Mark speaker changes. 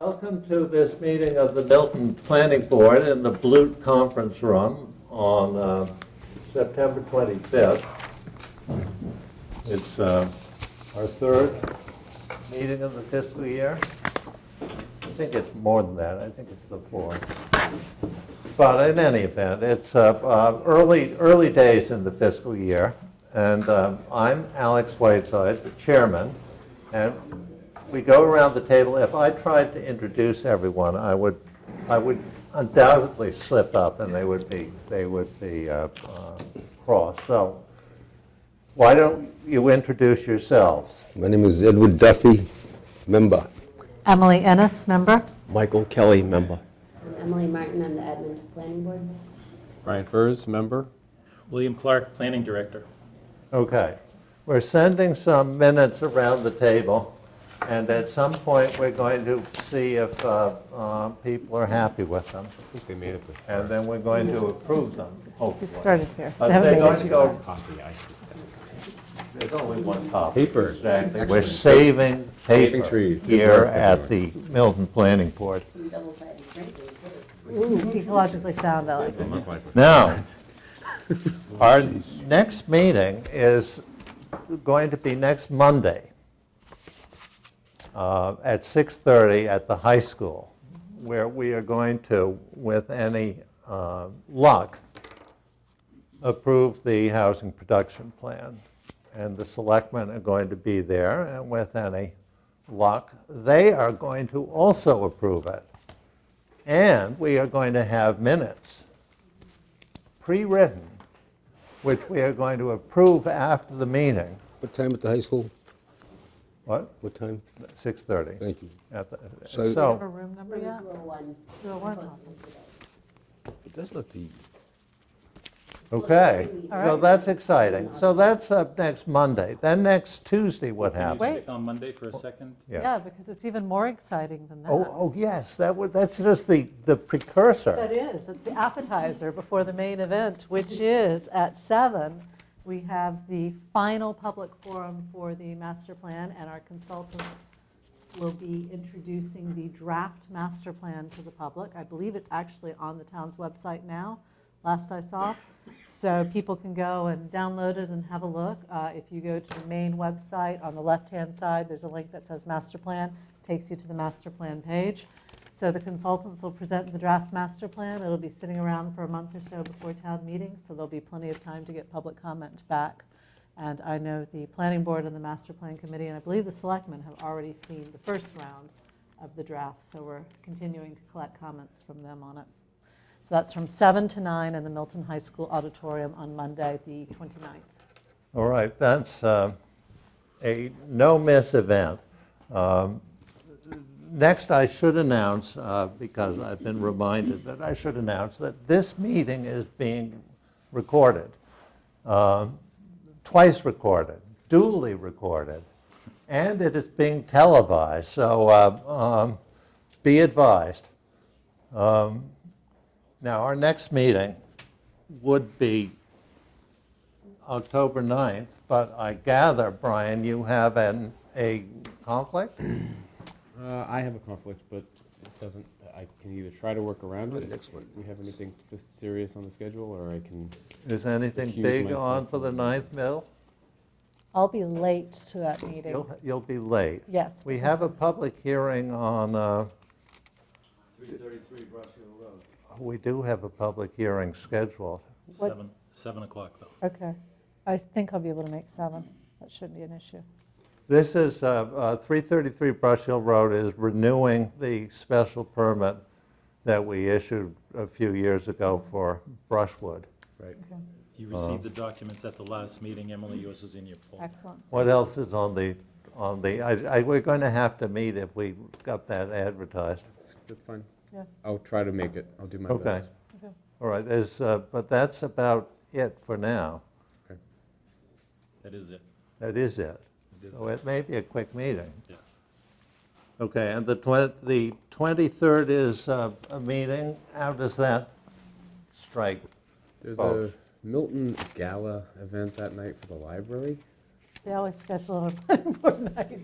Speaker 1: Welcome to this meeting of the Milton Planning Board in the Blute Conference Room on uh, September 25th. It's uh, our third meeting of the fiscal year. I think it's more than that, I think it's the fourth. But in any event, it's uh, uh, early, early days in the fiscal year, and um, I'm Alex Whiteside, the chairman, and we go around the table. If I tried to introduce everyone, I would, I would undoubtedly slip up and they would be, they would be uh, uh, cross. So why don't you introduce yourselves?
Speaker 2: My name is Edward Duffy, member.
Speaker 3: Emily Ennis, member.
Speaker 4: Michael Kelly, member.
Speaker 5: Emily Martin, I'm the admin to planning board.
Speaker 4: Brian Furs, member.
Speaker 6: William Clark, Planning Director.
Speaker 1: Okay. We're sending some minutes around the table, and at some point, we're going to see if uh, uh, people are happy with them,
Speaker 4: I think we made it this
Speaker 1: and then we're going to approve them, hopefully.
Speaker 3: You started here.
Speaker 1: But they're going to go
Speaker 4: Coffee, I see.
Speaker 1: There's only one copy.
Speaker 4: Paper.
Speaker 1: Exactly. We're saving
Speaker 4: Saving
Speaker 1: paper
Speaker 4: trees.
Speaker 1: here at the Milton Planning Board.
Speaker 5: Some double-sided print, we did it.
Speaker 3: Ooh, ecologically sound, I like it.
Speaker 1: Now, our next meeting is going to be next Monday uh, at 6:30 at the high school, where we are going to, with any uh, luck, approve the housing production plan. And the selectmen are going to be there, and with any luck, they are going to also approve it. And we are going to have minutes pre-written, which we are going to approve after the meeting.
Speaker 2: What time at the high school?
Speaker 1: What?
Speaker 2: What time?
Speaker 1: 6:30.
Speaker 2: Thank you.
Speaker 1: At the-
Speaker 2: So-
Speaker 3: Have a
Speaker 1: So,
Speaker 3: room number
Speaker 5: Room
Speaker 3: yet?
Speaker 5: 201.
Speaker 3: Two oh one,
Speaker 5: Posted
Speaker 3: awesome.
Speaker 5: today.
Speaker 2: But that's not the,
Speaker 1: okay.
Speaker 5: All
Speaker 1: So
Speaker 3: right.
Speaker 1: that's exciting. So that's up next Monday. Then next Tuesday, what
Speaker 6: Can you
Speaker 1: happens?
Speaker 3: Wait.
Speaker 6: stick on Monday for a second?
Speaker 3: Yeah, because it's even more exciting than that.
Speaker 1: Oh, oh, yes, that would, that's just the the precursor.
Speaker 3: That is, it's the appetizer before the main event, which is at seven. We have the final public forum for the master plan, and our consultants will be introducing the draft master plan to the public. I believe it's actually on the town's website now, last I saw. So people can go and download it and have a look. Uh, If you go to the main website, on the left-hand side, there's a link that says master plan, takes you to the master plan page. So the consultants will present the draft master plan. It'll be sitting around for a month or so before town meeting, so there'll be plenty of time to get public comment back. And I know the planning board and the master plan committee, and I believe the selectmen have already seen the first round of the draft, so we're continuing to collect comments from them on it. So that's from 7 to 9 in the Milton High School auditorium on Monday, the 29th.
Speaker 1: All right, that's uh, a no-miss event. Um, Next, I should announce, uh, because I've been reminded that I should announce, that this meeting is being recorded, um, twice recorded, duly recorded, and it is being televised, so uh, um, be advised. Um, Now, our next meeting would be October 9th, but I gather, Brian, you have an, a conflict?
Speaker 4: Uh, I have a conflict, but it doesn't, I can either try to work around
Speaker 2: Go to
Speaker 4: it.
Speaker 2: next one.
Speaker 4: We have anything s- serious on the schedule, or I can,
Speaker 1: Is anything
Speaker 4: Excuse
Speaker 1: big
Speaker 4: myself.
Speaker 1: on for the 9th, Mill?
Speaker 3: I'll be late to that meeting.
Speaker 1: You'll, you'll be late.
Speaker 3: Yes.
Speaker 1: We have a public hearing on, uh,
Speaker 7: 333 Brush Hill Road.
Speaker 1: we do have a public hearing scheduled.
Speaker 3: What-
Speaker 6: Seven, seven o'clock, though.
Speaker 3: Okay. I think I'll be able to make 7. That shouldn't be an issue.
Speaker 1: This is, uh, uh, 333 Brush Hill Road is renewing the special permit that we issued a few years ago for brushwood.
Speaker 4: right?
Speaker 6: You received
Speaker 3: Uh-huh.
Speaker 6: the documents at the last meeting, Emily, yours is in your folder.
Speaker 3: Excellent.
Speaker 1: What else is on the, on the, I, I, we're going to have to meet if we got that advertised.
Speaker 4: That's- That's fine.
Speaker 3: Yeah.
Speaker 4: I'll try to make it. I'll do my
Speaker 1: Okay.
Speaker 4: best.
Speaker 1: All right, there's, uh, but that's about it for now.
Speaker 6: That is it,
Speaker 1: That is it.
Speaker 6: It is
Speaker 1: So it may be a quick meeting.
Speaker 6: yes.
Speaker 1: Okay, and the twen, the 23rd is uh, a meeting. How does that strike?
Speaker 4: There's
Speaker 1: Oh.
Speaker 4: a Milton Gala event that night for the library.
Speaker 3: They always schedule it on planning board night.